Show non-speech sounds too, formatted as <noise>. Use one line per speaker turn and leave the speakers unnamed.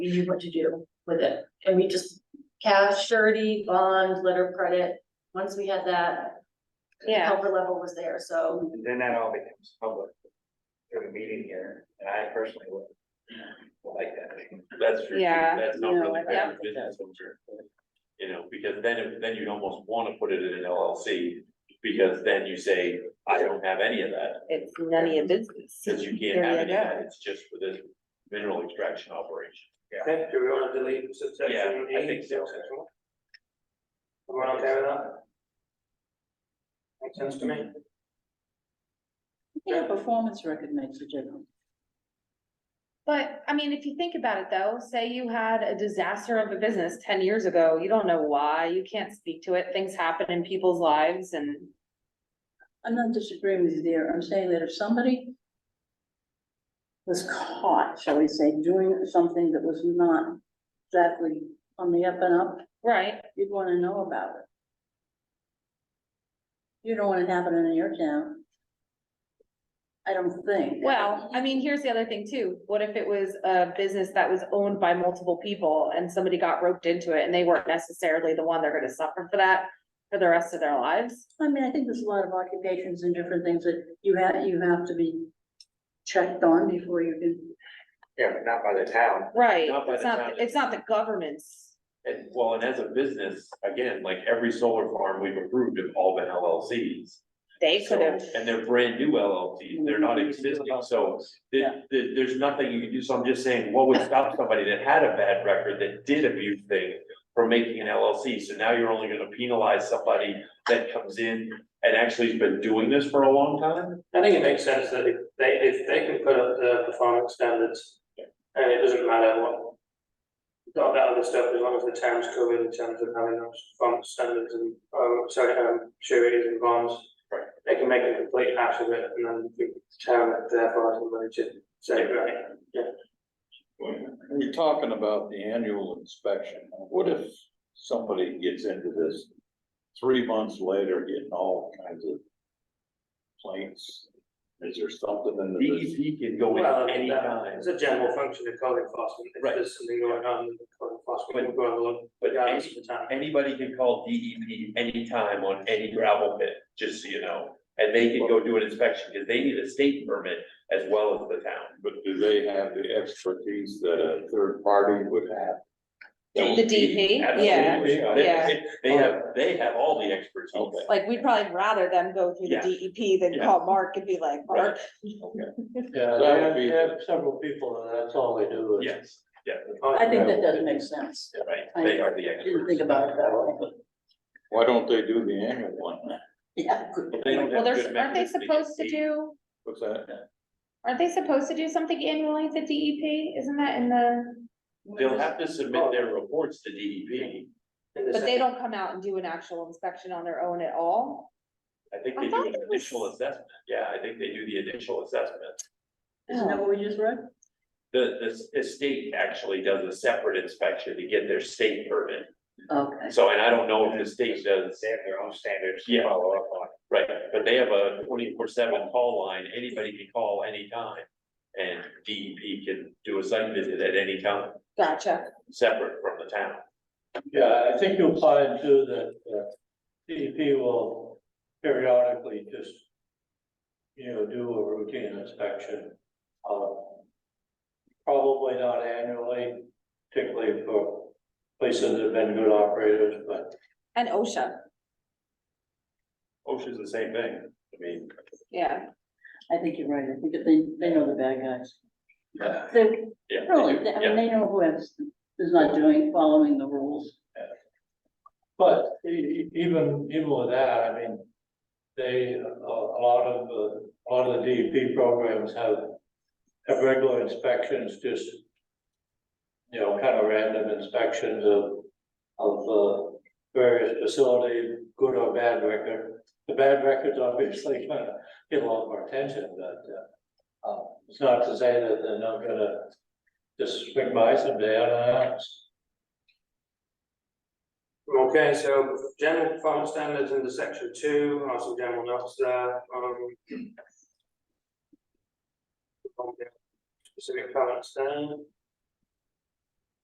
we knew what to do with it. And we just cash, surety, bond, letter of credit, once we had that. the
Yeah.
Comfort level was there, so
then that all becomes public. Through the meeting here, and I personally would. Like that.
That's true, too.
Yeah,
that's not
no,
really
I
fair to
don't
business owner. You know, because then, if- then you'd almost wanna put it in an LLC, because then you say, I don't have any of that,
It's none of your business.
since you can't
There
have
you
any of that,
go.
it's just for this mineral extraction operation.
Okay, do we wanna delete subsection
Yeah, I
E?
think so.
subsection? Everyone okay with that? Makes sense to me.
Yeah, performance record makes a difference.
But, I mean, if you think about it though, say you had a disaster of a business ten years ago, you don't know why, you can't speak to it, things happen in people's lives and.
I'm not disagreeing with you there, I'm saying that if somebody was caught, shall we say, doing something that was not exactly on the up and up,
Right,
you'd wanna know about it. You don't want it happening in your town. I don't think.
well, I mean, here's the other thing too, what if it was a business that was owned by multiple people and somebody got roped into it and they weren't necessarily the one they're gonna suffer for that for the rest of their lives?
I mean, I think there's a lot of occupations and different things that you have, you have to be checked on before you can
Yeah, but not by the town.
Right,
Not by
it's
the
not,
time
it's not the government's,
And well, and as a business, again, like every solar farm we've approved have all been LLCs.
they could have.
And they're brand new LLCs, they're
Mm-hmm.
not existing, so
Yeah.
there, there- there's nothing you can do, so I'm just saying, what would stop somebody that had a bad record, that did abuse things from making an LLC, so now you're only gonna penalize somebody that comes in and actually has been doing this for a long time?
I think it makes sense that if they, if they can put up the performance standards, and it doesn't matter what. Got that other stuff, as long as the town's covered in terms of having those performance standards and, um, sorry, um, sureties and bonds.
Right.
They can make a complete ass of it, and then the town therefore has the money to say, right, yeah.
We're talking about the annual inspection. What if somebody gets into this three months later getting all kinds of complaints? Is there something in the business?
DEP E can go
Well,
in
I mean,
any
that-
time,
It's a general function of code enforcement, if
Right.
there's something going on, then the code enforcement will go along, but yeah, it's the town.
anybody can call DEP anytime on any gravel pit, just so you know. And they can go do an inspection, because they need a state permit as well as the town.
But do they have the expertise that a third party would have?
The DP, yeah,
Absolutely. They-
yeah.
they- They have, they have all the expertise.
Okay.
Like, we'd probably rather them go through the
Yeah.
DEP than
Yeah.
call Mark and be like, Mark,
Yeah,
That
they
would
have,
be-
they have several people and that's all they do is.
Yes,
I think that does make sense.
right, they are the
I Didn't
experts.
think about it that way.
Why don't they do the annual one? then?
Yeah.
But they don't
well,
have
they're,
good
aren't they
mechanisms
supposed to
get
do,
What's that?
aren't they supposed to do something annually at the DEP? Isn't that in the,
paid. They'll have to submit their reports to E DEP.
but they don't come out and do an actual inspection on their own at all?
I think
I
they do
thought
an
it was-
initial assessment. Yeah, I think they do the initial assessment.
Isn't that what we just read?
The, the s- the state actually does a separate inspection to get their state permit.
Okay.
So, and I don't know if the state does,
They have their own standards
Yeah.
to follow up on.
right, but they have a twenty-four seven call line. Anybody can call anytime. And DEP can do a site visit at any time.
Gotcha,
separate from the town.
Yeah, I think you'll find too that, uh, DEP will periodically just, you know, do a routine inspection. um, Probably not annually, particularly for places that have been good operators, but
and OSHA,
OSHA's the same thing. I mean,
yeah,
I think you're right. I think that they, they know the bad guys. They,
yeah.
really, they- I mean, they know who is, is not doing, following the rules.
But e- e- even, even with that, I mean, they, a a lot of, the- a lot of the DEP programs have, have regular inspections, just, you know, kind of random inspections of, of uh, various facilities, good or bad record. The bad records obviously <laughs> kind of get a lot more attention, but, uh, um, it's not to say that they're not gonna just swing by someday unannounced.
Okay, so general performance standards under section two, or some general notes there, um. Specific comments there.